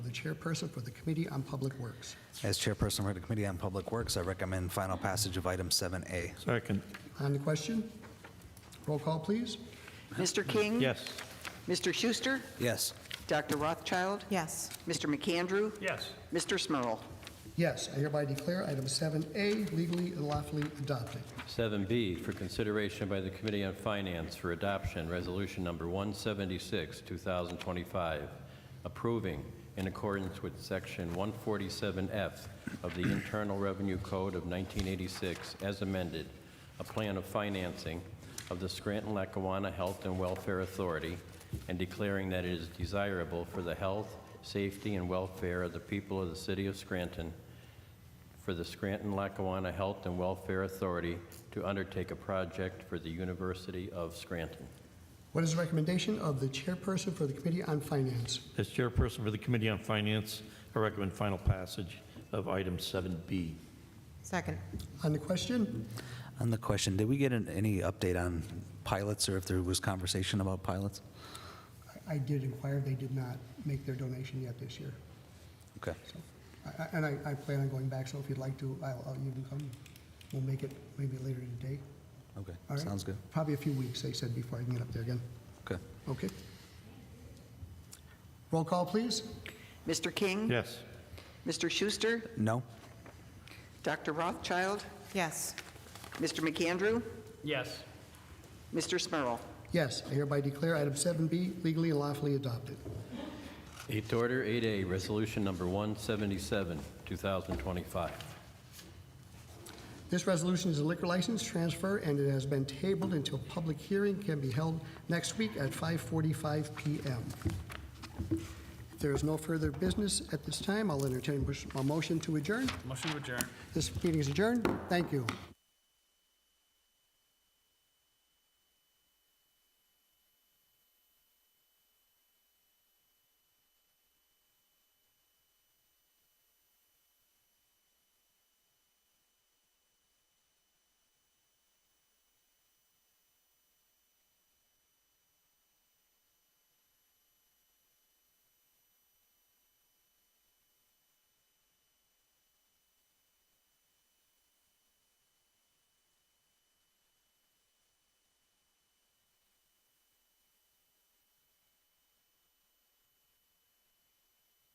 and chairperson for the Committee on Public Works. As chairperson for the Committee on Public Works, I recommend final passage of item 7A. Second. On the question? Roll call, please. Mr. King? Yes. Mr. Schuster? Yes. Dr. Rothschild? Yes. Mr. McAndrew? Yes. Mr. Smurl? Yes, I hereby declare item 7A legally and lawfully adopted. 7B for consideration by the Committee on Finance for adoption, Resolution Number 176, 2025, approving in accordance with Section 147F of the Internal Revenue Code of 1986 as amended, a plan of financing of the Scranton-Lackawanna Health and Welfare Authority and declaring that it is desirable for the health, safety, and welfare of the people of the city of Scranton for the Scranton-Lackawanna Health and Welfare Authority to undertake a project for the University of Scranton. What is the recommendation of the chairperson for the Committee on Finance? As chairperson for the Committee on Finance, I recommend final passage of item 7B. Second. On the question? On the question, did we get an- any update on pilots or if there was conversation about pilots? I I did inquire, they did not make their donation yet this year. Okay. I- I- And I, I plan on going back, so if you'd like to, I'll, I'll- you can come. We'll make it maybe later today. Okay. All right? Sounds good. Probably a few weeks, they said, before I can get up there again. Okay. Okay. Roll call, please. Mr. King? Yes. Mr. Schuster? No? Dr. Rothschild? Yes. Mr. McAndrew? Yes. Mr. Smurl? Yes, I hereby declare item 7B legally and lawfully adopted. Eighth order, 8A, Resolution Number 177, 2025. This resolution is a liquor license transfer, and it has been tabled until public hearing can be held next week at 5:45 PM. If there is no further business at this time, I'll entertain a motion to adjourn. Motion to adjourn. This meeting is adjourned. Thank you.